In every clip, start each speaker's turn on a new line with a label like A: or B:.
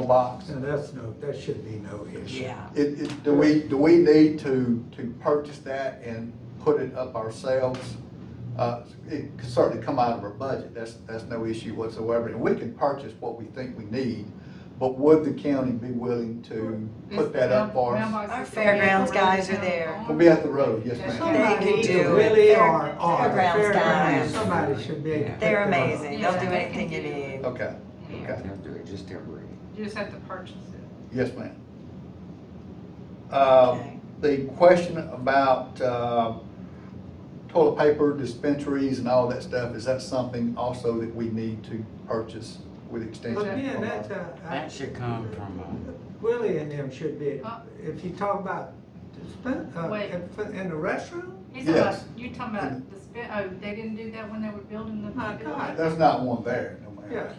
A: mailbox.
B: And that's no, that should be no issue.
C: Yeah.
A: It, it, do we, do we need to, to purchase that and put it up ourselves? Uh, it could certainly come out of our budget, that's, that's no issue whatsoever, and we can purchase what we think we need, but would the county be willing to put that up for us?
C: Our fairgrounds guys are there.
A: We'll be at the road, yes ma'am.
C: They can
B: Either
C: do
B: Really
C: it.
B: are, are.
C: Fairgrounds guys.
B: Somebody should be able to.
C: They're
B: pick them up.
C: amazing. They'll do anything you need.
A: Okay,
D: Yeah,
A: okay,
E: They'll do it just temporary.
D: You just have to purchase it.
A: yes ma'am. Uh,
C: Okay.
A: the question about, uh, toilet paper dispensaries and all that stuff, is that something also that we need to purchase with extension?
B: But again,
A: from our-
B: that's, uh. I-
E: That should come from, uh,
B: Willie and them should be,
D: Huh?
B: if you talk about, dispen- uh,
D: Uh, Wait.
B: in- in the restroom,
D: He's talking about,
A: Yes. Mm-hmm.
D: you talking about the spin, oh, they didn't do that when they were building the.
B: My
D: building?
B: God.
A: There's not one there, no
B: yeah.
A: matter.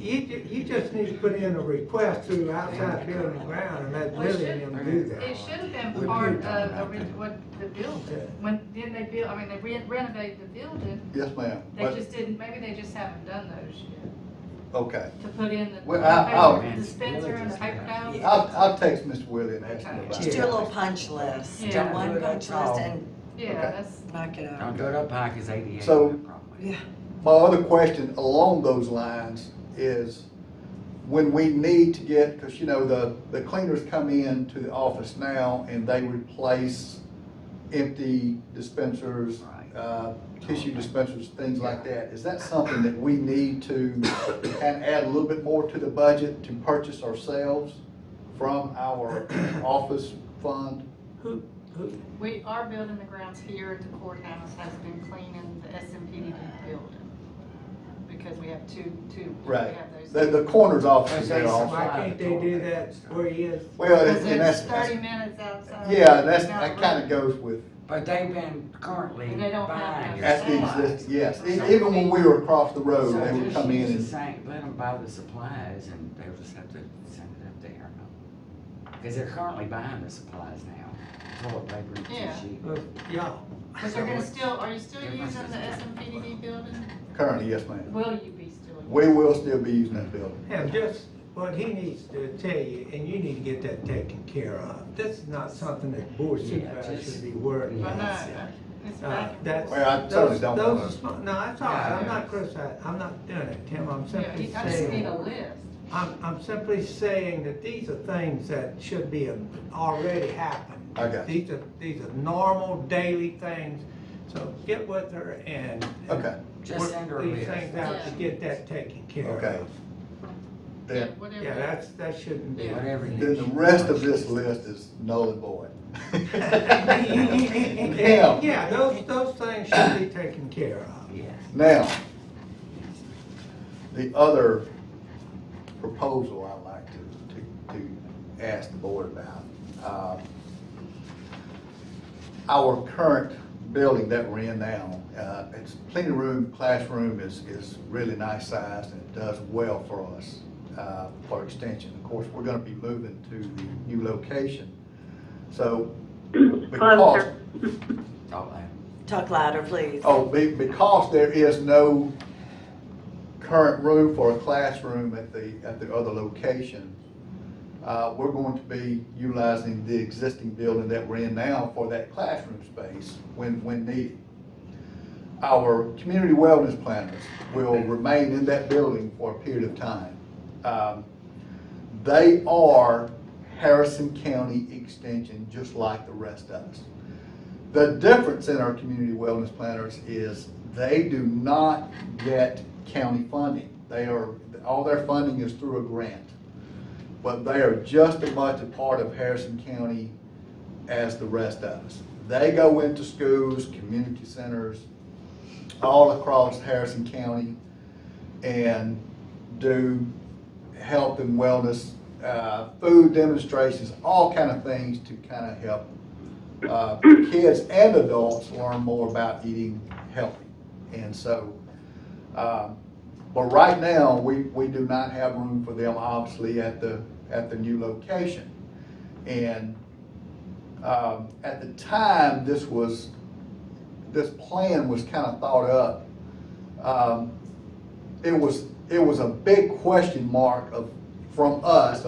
B: You, ju- you just need to put in a request through outside building ground and let
D: Well, it
B: Willie and
D: should-
B: them do that.
D: It should have
E: We
D: been part
E: did talk about
D: of the,
E: that.
D: what, the building,
B: Yeah.
D: when, then they built, I mean, they re- renovated the building,
A: Yes, ma'am.
D: they
A: But,
D: just didn't, maybe they just haven't done those yet,
A: okay.
D: to put in the
A: Well, I- oh,
D: paper
E: I'll-
D: dispenser and the paper towels.
A: I'll, I'll text Mr. Willie and ask him about
C: Just
A: it.
C: do a little punch list, do
D: Yeah.
C: one punch list and
D: Yeah,
A: Okay.
D: that's,
C: knock it out.
E: don't do it up high, cause ADA is
A: So-
E: a problem.
C: Yeah.
A: My other question along those lines is, when we need to get, because you know, the, the cleaners come in to the office now and they replace empty dispensers,
E: Right.
A: uh, tissue dispensers, things like that. Is that something that we need to and add a little bit more to the budget to purchase ourselves from our office fund?
B: Who, who,
D: we are building the grounds here at the courthouse, has been cleaning the SMPD building, because we have two, two, we
A: Right.
D: have those.
A: The, the coroner's office is
E: There's
A: there also.
B: why can't they do that where he is?
A: Well,
D: Because
A: and and that's,
D: it's
A: that's-
D: thirty minutes outside.
A: yeah, that's, that kind of goes with,
E: But they've been currently
D: They don't have that.
E: buying your
A: at the
E: supplies.
A: exist, yes, E- even when we were across the road,
E: So
A: they would
E: just
A: come in
E: use the
A: and,
E: same, let them buy the supplies and they'll just have to send it up there. Cause they're currently buying the supplies now, toilet paper and
D: Yeah.
B: Uh,
E: tissue.
B: Yeah,
D: But they're gonna still, are you still
E: Difference
D: using
E: is-
D: the SMPDD building?
A: currently, yes, ma'am.
D: Will you be still? using
A: We will still be using that building.
B: and just what he needs to tell you, and you need to get that taken care of. This is not something that board
E: Yeah,
B: supervisors
E: just-
B: should be worried
D: it?
B: about.
D: I know,
E: Yes.
D: it's
B: Uh,
D: back and
B: That's.
D: forth.
A: Well, I certainly
B: those-
A: don't
B: those
A: wanna-
B: are small- No, it's all right, I'm not criticizing, I'm not doing it, Tim, I'm
D: Yeah,
B: simply
D: you- I just need
B: saying,
D: a list.
B: I'm, I'm simply saying that these are things that should be a- already happened.
A: I got you.
B: These are, these are normal daily things, so get with her and. and
A: Okay.
E: Just
B: work
E: send her a
B: These
E: list.
B: things out to
D: Yeah.
B: get that taken care
A: Okay.
B: of.
D: Yeah,
A: Then,
D: whatever.
B: Yeah, that's, that shouldn't be.
E: Whatever. you
A: then the
E: need.
A: rest of this list is null and void. Now,
B: Yeah, those, those things should be taken care of.
E: Yes.
A: now, the other proposal I'd like to, to, to ask the board about. uh, Our current building that we're in now, uh, it's plenty of room, classroom is, is really nice sized and it does well for us, uh, for extension. Of course, we're gonna be moving to the new location, so. because-
E: All that.
C: Talk louder, please.
A: Oh, be, because there is no current room for a classroom at the, at the other location, uh, we're going to be utilizing the existing building that we're in now for that classroom space when, when needed. Our community wellness planners will remain in that building for a period of time. Um, They are Harrison County Extension, just like the rest of us. The difference in our community wellness planners is they do not get county funding. They are, all their funding is through a grant. But they are just as much a part of Harrison County as the rest of us. They go into schools, community centers, all across Harrison County and do health and wellness, uh, food demonstrations, all kind of things to kind of help uh, kids and adults learn more about eating healthy. And so, um, but right now, we, we do not have room for them, obviously, at the, at the new location. And um, at the time, this was, this plan was kind of thought up. um, It was, it was a big question mark of from us